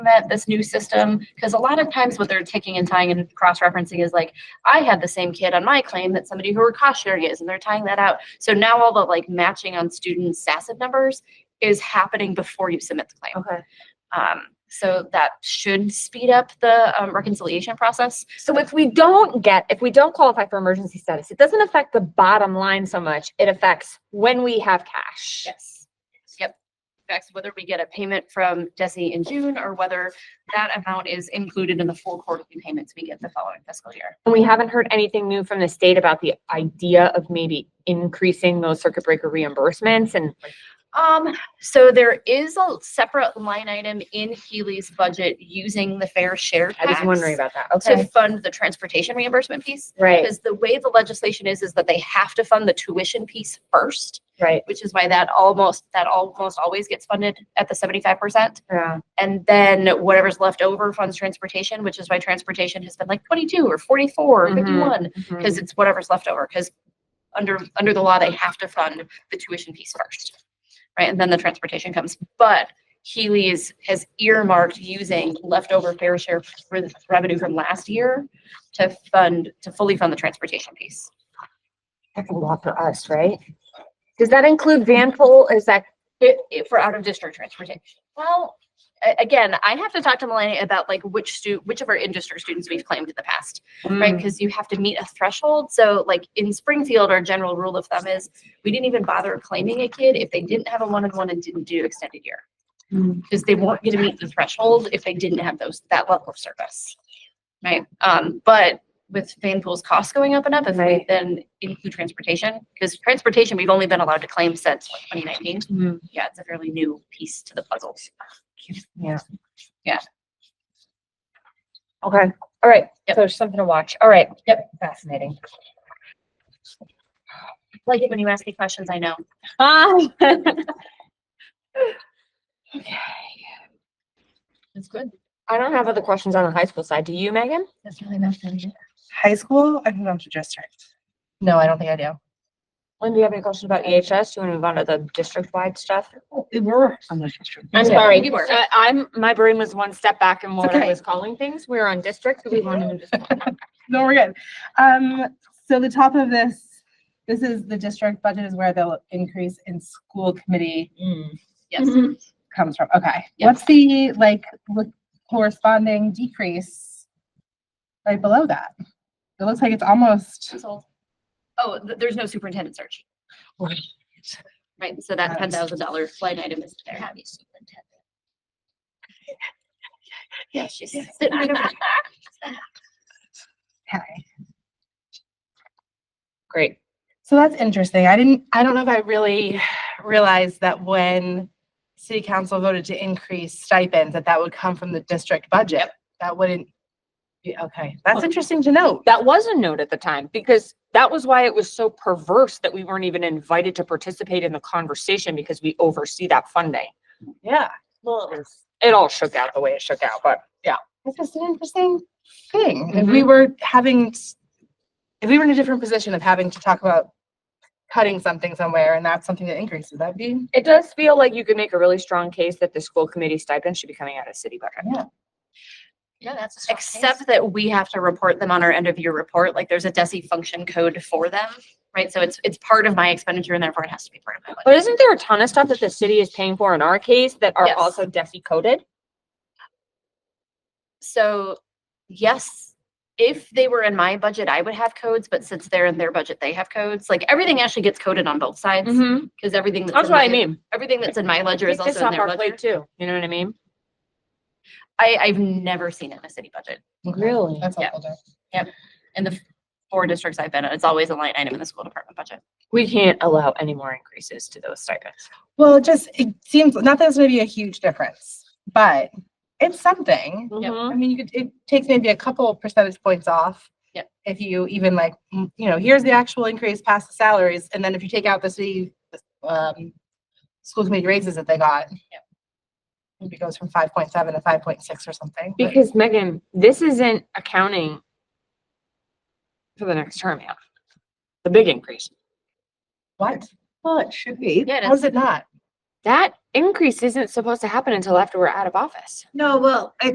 implement this new system? Because a lot of times what they're ticking and tying and cross-referencing is like, I had the same kid on my claim that somebody who were cost sharing is, and they're tying that out. So now all the like matching on student SASIP numbers is happening before you submit the claim. Okay. Um, so that should speed up the um, reconciliation process. So if we don't get, if we don't qualify for emergency status, it doesn't affect the bottom line so much. It affects when we have cash. Yes. Yep. That's whether we get a payment from Desi in June or whether that amount is included in the four quarterly payments we get the following fiscal year. And we haven't heard anything new from the state about the idea of maybe increasing those circuit breaker reimbursements and Um, so there is a separate line item in Healy's budget using the fair share I was tax wondering about that. to Okay. fund the transportation reimbursement piece. Right, Because the way the legislation is, is that they have to fund the tuition piece first, right. which is why that almost, that almost always gets funded at the seventy-five percent. Yeah. And then whatever's left over funds transportation, which is why transportation has been like twenty-two or forty-four or Mhm. fifty-one, Mhm. because it's whatever's left over, because under, under the law, they have to fund the tuition piece first, right? And then the transportation comes, but Healy is, has earmarked using leftover fair share re- revenue from last year to fund, to fully fund the transportation piece. That's a lot for us, right? Does that include van pool? Is that, It, it- for out of district transportation. Well, a- again, I have to talk to Melanie about like which stu, which of our in-district students we've claimed in the past. right? Mm, Because you have to meet a threshold. So like in Springfield, our general rule of thumb is we didn't even bother claiming a kid if they didn't have a one-on-one and didn't do extended year. Mm. Because they weren't going to meet the threshold if they didn't have those, that level of service. Right? Um, but with Vanpool's costs going up and up, if we Right. then include transportation, because transportation, we've only been allowed to claim since what, 2019. mm, Yeah, it's a fairly new piece to the puzzle. Yeah. Yeah. Okay, all right. So Yep. there's something to watch. All right. Yep. Fascinating. Like when you ask me questions, I know. Ah. That's good. I don't have other questions on the high school side. Do you, Megan? That's really nothing. High school? I think I'm district. No, I don't think I do. Lynn, do you have any questions about EHS? Do you want to move on to the district-wide stuff? We were on the district. I'm Yeah, sorry, you were. uh, I'm, my brain was one step back in what I Okay. was calling things. We were on district, so we wanted to just. No, we're good. Um, so the top of this, this is the district budget is where the increase in school committee Mm, Yes. comes from. Okay. Yep. What's the like l- corresponding decrease right below that? It looks like it's almost, Sold. Oh, th- there's no superintendent search. Right. Right, so that Got ten it. thousand dollar flight item is there. Yeah, she's sitting right over there. okay. Great. So that's interesting. I didn't, I don't know if I really realized that when city council voted to increase stipends, that that would come from the district budget. That wouldn't be, okay. That's Well- interesting to note. That was a note at the time because that was why it was so perverse that we weren't even invited to participate in the conversation because we oversee that funding. Yeah. It all shook out the way it shook out, but yeah. That's just an interesting thing. If we were having, s- if we were in a different position of having to talk about cutting something somewhere and that's something that increases, that'd be, It does feel like you could make a really strong case that the school committee stipend should be coming out of city budget. Yeah, that's. Except that we have to report them on our end of year report, like there's a DESI function code for them, right? So it's, it's part of my expenditure and therefore it has to be part of my budget. But isn't there a ton of stuff that the city is paying for in our case that are Yes. also DESI coded? So, yes, if they were in my budget, I would have codes, but since they're in their budget, they have codes. Like everything actually gets coded on both sides, because everything. Mm-hmm. that's Mm-hmm. That's in what I my- mean. Everything that's in my ledger is Take this also in off their our plate ledger. too. You know what I mean? I, I've never seen it in a city budget. Really? that's Yeah. helpful. In the f- four districts I've been in, it's always a line item in the school department budget. We can't allow any more increases to those stipends. Well, it just, it seems, not that it's gonna be a huge difference, but it's something. Yep. Mm-hmm. I mean, you could, it takes maybe a couple percentage points off. Yep. If you even like, mm, you know, here's the actual increase past the salaries, and then if you take out the city, um, school committee raises that they got. Yep. Maybe it goes from five point seven to five point six or something. but- Because Megan, this isn't accounting for the next term, yeah. The big increase. What? Well, it should be. Yeah, it How's is. it not? that increase isn't supposed to happen until after we're out of office. No, well, I